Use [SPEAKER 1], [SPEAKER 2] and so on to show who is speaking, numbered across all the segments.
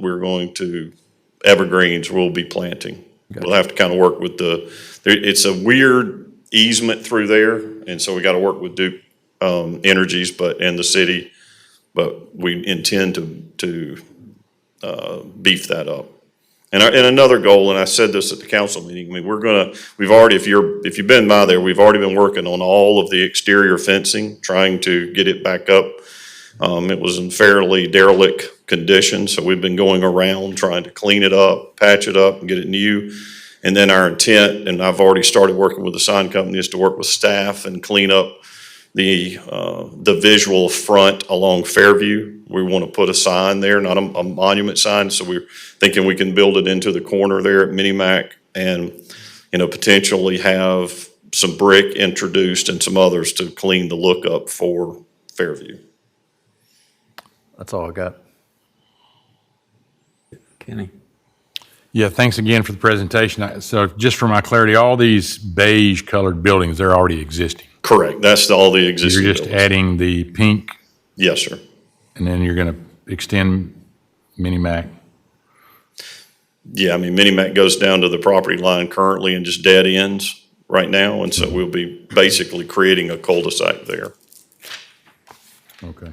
[SPEAKER 1] we're going to, evergreens we'll be planting. We'll have to kind of work with the, there, it's a weird easement through there, and so we got to work with Duke, um, Energies, but, and the city. But we intend to, to, uh, beef that up. And, our- and another goal, and I said this at the council meeting, I mean, we're gonna, we've already, if you're, if you've been by there, we've already been working on all of the exterior fencing, trying to get it back up. Um, it was in fairly derelict condition, so we've been going around trying to clean it up, patch it up, and get it new. And then our intent, and I've already started working with the sign company, is to work with staff and clean up the, uh, the visual front along Fairview. We want to put a sign there, not a, a monument sign, so we're thinking we can build it into the corner there at Minimac and, you know, potentially have some brick introduced and some others to clean the look up for Fairview.
[SPEAKER 2] That's all I got.
[SPEAKER 3] Kenny?
[SPEAKER 4] Yeah, thanks again for the presentation. I- So just for my clarity, all these beige colored buildings, they're already existing.
[SPEAKER 1] Correct, that's the- all the
[SPEAKER 4] You're
[SPEAKER 1] existing
[SPEAKER 4] just
[SPEAKER 1] buildings.
[SPEAKER 4] adding the pink
[SPEAKER 1] Yes, sir.
[SPEAKER 4] and then you're going to extend Mini Mac.
[SPEAKER 1] Yeah, I mean, Minimac goes down to the property line currently and just dead ends right now, and so we'll be basically creating a cul-de-sac there.
[SPEAKER 4] Okay.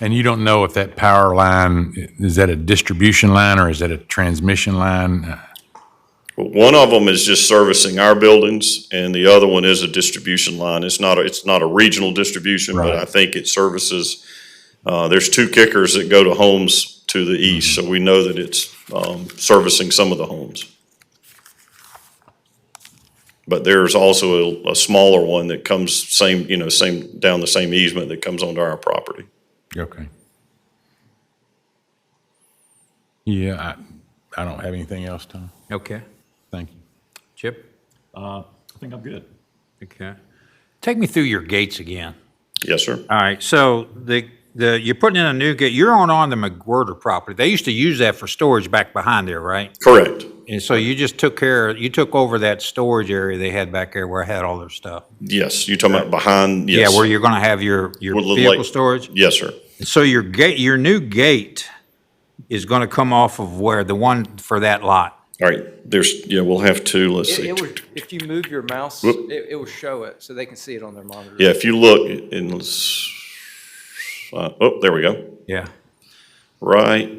[SPEAKER 4] And you don't know if that power line, i- is that a distribution line or is that a transmission line? Uh,
[SPEAKER 1] But one of them is just servicing our buildings, and the other one is a distribution line. It's not, a- it's not a regional distribution, but I think it services, uh, there's two kickers that go to homes to the east,
[SPEAKER 3] Mm-hmm.
[SPEAKER 1] so we know that it's, um, servicing some of the homes. But there's also a, a smaller one that comes same, you know, same, down the same easement that comes onto our property.
[SPEAKER 4] Okay. Yeah, I, I don't have anything else, Tom.
[SPEAKER 3] Okay.
[SPEAKER 4] Thank you.
[SPEAKER 3] Chip?
[SPEAKER 5] Uh, I think I'm good.
[SPEAKER 3] Okay. Take me through your gates again.
[SPEAKER 1] Yes, sir?
[SPEAKER 3] All right, so the, the, you're putting in a new gate, you're on, on the McWhirter property. They used to use that for storage back behind there, right?
[SPEAKER 1] Correct.
[SPEAKER 3] And so you just took care, you took over that storage area they had back there where I had all their stuff.
[SPEAKER 1] Yes, you're talking about behind,
[SPEAKER 3] Yeah,
[SPEAKER 1] yes.
[SPEAKER 3] where you're gonna have your, your
[SPEAKER 1] Woodland
[SPEAKER 3] vehicle
[SPEAKER 1] Lake.
[SPEAKER 3] storage?
[SPEAKER 1] Yes, sir.
[SPEAKER 3] So your gate, your new gate is gonna come off of where, the one for that lot?
[SPEAKER 1] All right, there's, yeah, we'll have to, let's
[SPEAKER 6] It-
[SPEAKER 1] see.
[SPEAKER 6] it would- If you move your mouse,
[SPEAKER 1] Whoop.
[SPEAKER 6] it, it will show it, so they can see it on their monitor.
[SPEAKER 1] Yeah, if you look, and let's, uh, oh, there we go,
[SPEAKER 3] Yeah.
[SPEAKER 1] right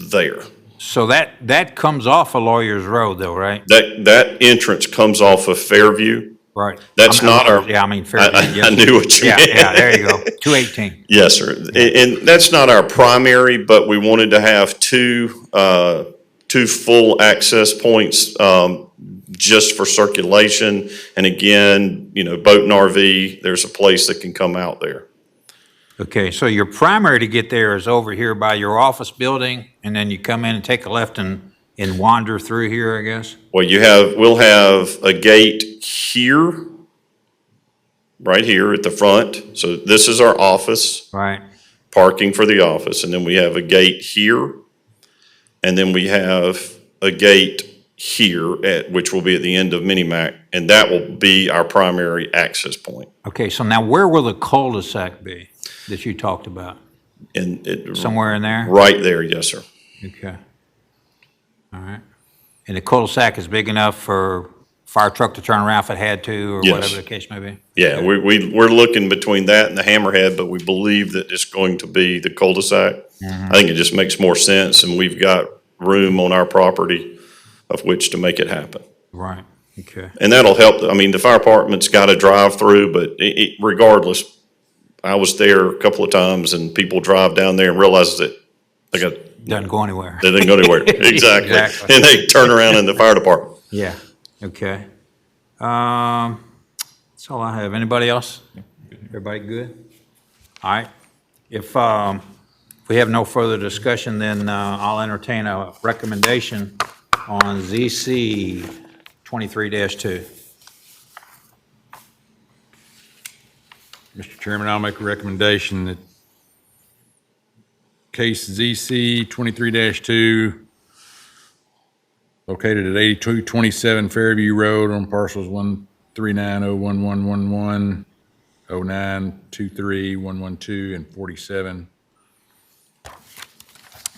[SPEAKER 1] there.
[SPEAKER 3] So that, that comes off of Lawyer's Road though, right?
[SPEAKER 1] That, that entrance comes off of Fairview.
[SPEAKER 3] Right.
[SPEAKER 1] That's
[SPEAKER 3] I mean,
[SPEAKER 1] not our-
[SPEAKER 3] Yeah, I mean,
[SPEAKER 1] I,
[SPEAKER 3] Fairview.
[SPEAKER 1] I- I
[SPEAKER 3] yes.
[SPEAKER 1] knew what you
[SPEAKER 3] Yeah,
[SPEAKER 1] meant.
[SPEAKER 3] yeah, there you go, 218.
[SPEAKER 1] Yes, sir. And, and that's not our primary, but we wanted to have two, uh, two full access points, um, just for circulation. And again, you know, boat and RV, there's a place that can come out there.
[SPEAKER 3] Okay, so your primary to get there is over here by your office building, and then you come in and take a left and, and wander through here, I guess?
[SPEAKER 1] Well, you have, we'll have a gate here, right here at the front. So this is our office,
[SPEAKER 3] Right,
[SPEAKER 1] parking for the office, and then we have a gate here. And then we have a gate here at, which will be at the end of Minimac, and that will be our primary access point.
[SPEAKER 3] okay, so now where will the cul-de-sac be that you talked about?
[SPEAKER 1] And it,
[SPEAKER 3] Somewhere in there?
[SPEAKER 1] right there, yes, sir.
[SPEAKER 3] Okay. All right. And the cul-de-sac is big enough for fire truck to turn around if it had to, or
[SPEAKER 1] Yes.
[SPEAKER 3] whatever the case may be?
[SPEAKER 1] Yeah, we, we, we're looking between that and the hammerhead, but we believe that it's going to be the cul-de-sac. I think it just makes more sense and we've got room on our property of which to make it happen.
[SPEAKER 3] Right, okay.
[SPEAKER 1] And that'll help, I mean, the fire department's got a drive-through, but i it, regardless, I was there a couple of times and people drive down there and realize that they got,
[SPEAKER 3] Doesn't go anywhere.
[SPEAKER 1] they didn't go anywhere. Exactly.
[SPEAKER 3] Exactly.
[SPEAKER 1] And they turn around in the fire department.
[SPEAKER 3] Yeah, okay. Um, that's all I have. Anybody else? Everybody good? All right. If, um, if we have no further discussion, then, uh, I'll entertain a recommendation on ZC twenty-three two.
[SPEAKER 4] Mr. Chairman, I'll make a recommendation that case ZC 23-2, located at 8227 Fairview Road on parcels 139011111, 09231112, and 47,